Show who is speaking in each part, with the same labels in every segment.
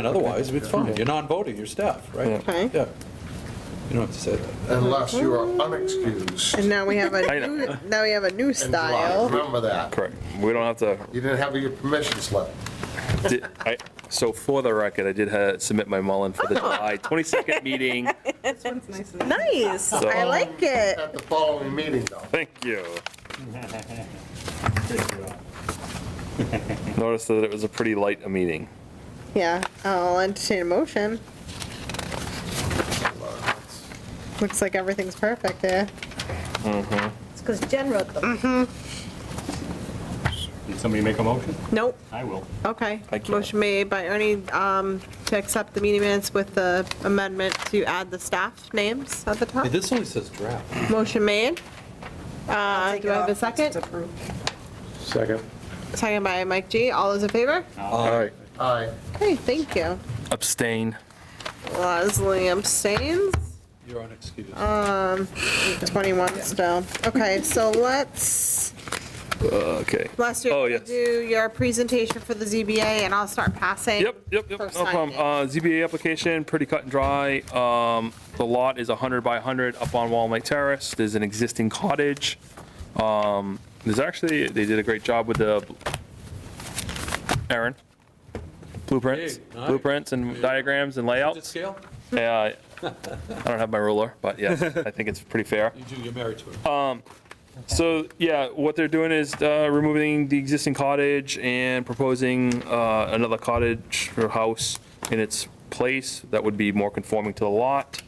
Speaker 1: And otherwise, it's fine, you're non-voting, you're staff, right?
Speaker 2: Okay.
Speaker 1: Yeah. You don't have to say that.
Speaker 3: unless you are unexcused.
Speaker 2: And now we have a
Speaker 4: I know.
Speaker 2: new, now we have a new
Speaker 3: in July.
Speaker 2: style.
Speaker 3: Remember that.
Speaker 4: Correct. We don't have to
Speaker 3: You didn't have your permission slip.
Speaker 4: Did- I- So for the record, I did ha- submit my Mullen for the July 22nd meeting.
Speaker 2: Nice, I like it.
Speaker 3: At the following meeting, though.
Speaker 4: Thank you. Noticed that it was a pretty light a meeting.
Speaker 2: Yeah, I'll entertain a motion. Looks like everything's perfect eh? there.
Speaker 5: It's because Jen wrote them.
Speaker 6: Did somebody make a motion?
Speaker 2: Nope,
Speaker 6: I will.
Speaker 2: okay.
Speaker 4: I can't.
Speaker 2: Motion made by Ernie um, to accept the meeting minutes with the amendment to add the staff names at the top.
Speaker 1: Hey, This only says draft.
Speaker 2: Motion made. Uh,
Speaker 5: take
Speaker 2: Do
Speaker 5: it
Speaker 2: I have a
Speaker 5: off.
Speaker 2: second?
Speaker 1: Second.
Speaker 2: Second by Mike G. All those in favor?
Speaker 1: Uh,
Speaker 4: All right.
Speaker 3: Aye.
Speaker 2: Okay, thank you.
Speaker 4: Abstain.
Speaker 2: Leslie abstains.
Speaker 1: You're unexcused.
Speaker 4: Uh,
Speaker 2: 21 still. Okay, so let's,
Speaker 4: Okay.
Speaker 2: last year,
Speaker 4: Oh,
Speaker 2: you
Speaker 4: yes.
Speaker 2: do your presentation for the ZBA, and I'll start passing.
Speaker 4: Yep, yep, yep, no
Speaker 2: for signing.
Speaker 4: problem. Uh, ZBA application, pretty cut and dry. Um, the lot is 100 by 100 up on Wall Lake Terrace. There's an existing cottage. Um, there's actually, they did a great job with the, Aaron, blueprints,
Speaker 1: Hey, nice.
Speaker 4: blueprints and diagrams and
Speaker 1: Is it
Speaker 4: layouts.
Speaker 1: scale?
Speaker 4: Yeah, I I don't have my ruler, but yeah, I think it's pretty fair.
Speaker 1: You do, you're married to it.
Speaker 4: Uh, So, yeah, what they're doing is uh, removing the existing cottage and proposing uh, another cottage or house in its place that would be more conforming to the lot.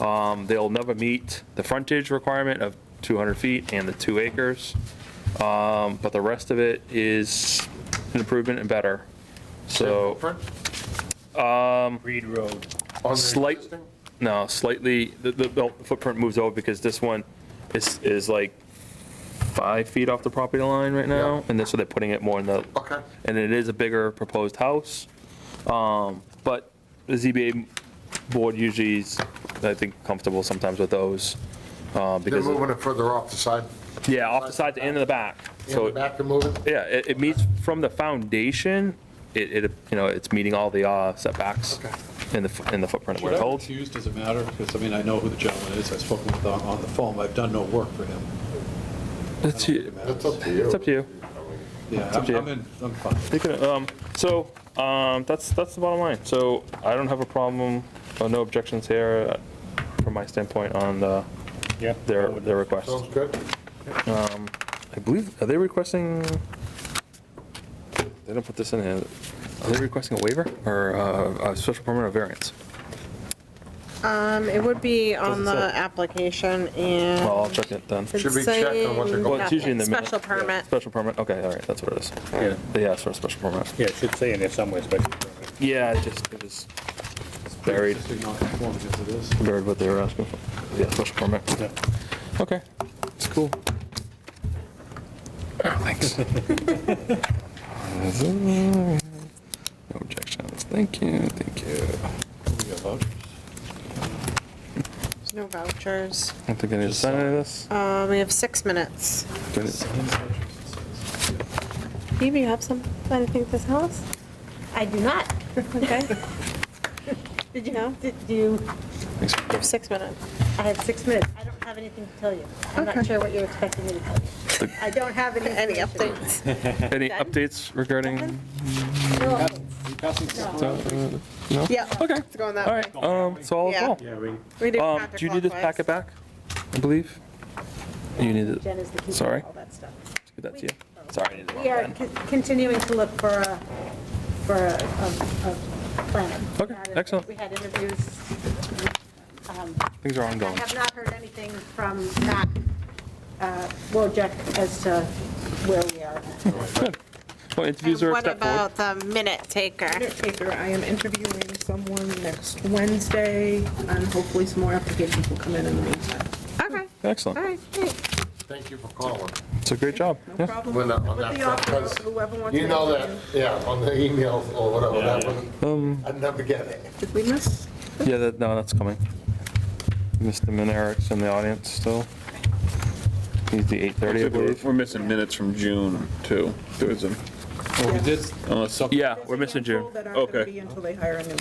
Speaker 4: Um, They'll never meet the frontage requirement of 200 feet and the two acres, Um, but the rest of it is an improvement and better. So, um,
Speaker 6: Reed Road.
Speaker 3: On the
Speaker 4: Slight-
Speaker 3: existing?
Speaker 4: no, slightly, the- the the footprint moves over because this one is, is like five feet off the property line right now,
Speaker 3: Yeah.
Speaker 4: and this, so they're putting it more in the
Speaker 3: Okay.
Speaker 4: and it is a bigger proposed house. Um, But the ZBA board usually is, I think, comfortable sometimes with those. uh,
Speaker 3: They're
Speaker 4: Because,
Speaker 3: moving it further off the side.
Speaker 4: yeah, off the side to end of the back.
Speaker 3: In the
Speaker 4: So,
Speaker 3: back, they're moving.
Speaker 4: yeah, it, it meets from the foundation, it, it, you know, it's meeting all the uh, setbacks
Speaker 3: Okay.
Speaker 4: in the, fo- in the footprint where
Speaker 1: Should
Speaker 4: it
Speaker 1: I be
Speaker 4: holds.
Speaker 1: accused, does it matter? Because, I mean, I know who the gentleman is, I've spoken with him on on the phone, I've done no work for him. I don't
Speaker 4: That's
Speaker 1: think
Speaker 4: you.
Speaker 1: it matters.
Speaker 3: That's up to you.
Speaker 4: It's up to you.
Speaker 1: Yeah,
Speaker 4: up to
Speaker 1: I'm
Speaker 4: you.
Speaker 1: I'm in, I'm fine.
Speaker 4: You can, um, So, um, that's, that's the bottom line. So I don't have a problem, uh, no objections here uh, from my standpoint on the,
Speaker 6: Yeah.
Speaker 4: their, their request. Um,
Speaker 3: Sounds good.
Speaker 4: I believe, are they requesting, they don't put this in here, are they requesting a waiver or uh, a special permit or variance?
Speaker 2: Um, it would be on
Speaker 4: Doesn't
Speaker 2: the
Speaker 4: say.
Speaker 2: application and.
Speaker 4: Well, I'll check it then.
Speaker 3: Should be checked on what they're
Speaker 2: Saying
Speaker 3: going-
Speaker 4: Well, it's usually in the minute.
Speaker 2: Special permit.
Speaker 4: Special permit, okay, all right, that's what it is.
Speaker 6: Yeah,
Speaker 4: They asked for a special permit.
Speaker 6: Yeah, it should say in there somewhere, but
Speaker 4: Yeah, it just, it was buried,
Speaker 1: Pre-existing non-conforming as it is.
Speaker 4: buried what they were asking for. Yeah, special permit.
Speaker 6: Yeah.
Speaker 4: Okay, it's cool. Oh, Thanks. No objections, thank you, thank you.
Speaker 1: We got vouchers.
Speaker 2: There's no vouchers.
Speaker 4: I don't think I need to sign any of this.
Speaker 2: Uh, we have six minutes.
Speaker 4: Do I need-
Speaker 1: Sign vouchers, it says.
Speaker 2: Eve, you have some, anything to tell us?
Speaker 5: I do not.
Speaker 2: Okay,
Speaker 5: Did you, did you,
Speaker 4: Thanks.
Speaker 2: six minutes.
Speaker 5: I had six minutes. I don't have anything to tell you. I'm not
Speaker 2: Okay.
Speaker 5: sure what you're expecting me to tell you. I don't have any.
Speaker 2: Any
Speaker 5: information.
Speaker 2: updates?
Speaker 4: Any updates regarding?
Speaker 5: No updates.
Speaker 2: Yeah.
Speaker 4: Okay.
Speaker 2: It's going that
Speaker 4: All
Speaker 2: way.
Speaker 4: right, um, so all is well.
Speaker 2: Yeah. We did
Speaker 4: Um, do you need this
Speaker 2: counterclockwise.
Speaker 4: packet back, I believe? You need it,
Speaker 5: Jen is the keeper
Speaker 4: Sorry.
Speaker 5: of all that stuff.
Speaker 4: give that to you. Sorry. I needed one
Speaker 5: We are
Speaker 4: then.
Speaker 5: con- continuing to look for a, for a, a- a planner.
Speaker 4: Okay, excellent.
Speaker 5: We had interviews. um,
Speaker 4: Things are
Speaker 5: I
Speaker 4: ongoing.
Speaker 5: have not heard anything from Matt uh, Wojcik as to where we are.
Speaker 4: Well, interviews
Speaker 2: And
Speaker 4: are a step forward.
Speaker 2: What about the minute taker?
Speaker 7: Caretaker, I am interviewing someone next Wednesday, and hopefully some more applications will come in in the meantime.
Speaker 2: Okay, all
Speaker 4: Excellent.
Speaker 2: right, great.
Speaker 3: Thank you for calling.
Speaker 4: It's a great job.
Speaker 7: No
Speaker 4: Yeah.
Speaker 7: problem.
Speaker 3: When, uh, on
Speaker 7: With
Speaker 3: that
Speaker 7: the
Speaker 3: front,
Speaker 7: offer,
Speaker 3: 'cause
Speaker 7: whoever wants to.
Speaker 3: You know that, yeah, on the emails or whatever, that
Speaker 4: Um,
Speaker 3: one, I'd never get it.
Speaker 7: Did we miss?
Speaker 4: Yeah, that, no, that's coming. Mr. Minaric's in the audience still. He's the 8:30, I
Speaker 8: We're
Speaker 4: believe.
Speaker 8: we're missing minutes from June, too. There was a,
Speaker 1: Well, we did,
Speaker 8: unless
Speaker 4: Yeah, we're missing
Speaker 7: Handful
Speaker 4: June.
Speaker 7: That aren't gonna
Speaker 8: Okay.
Speaker 7: be until they hire a new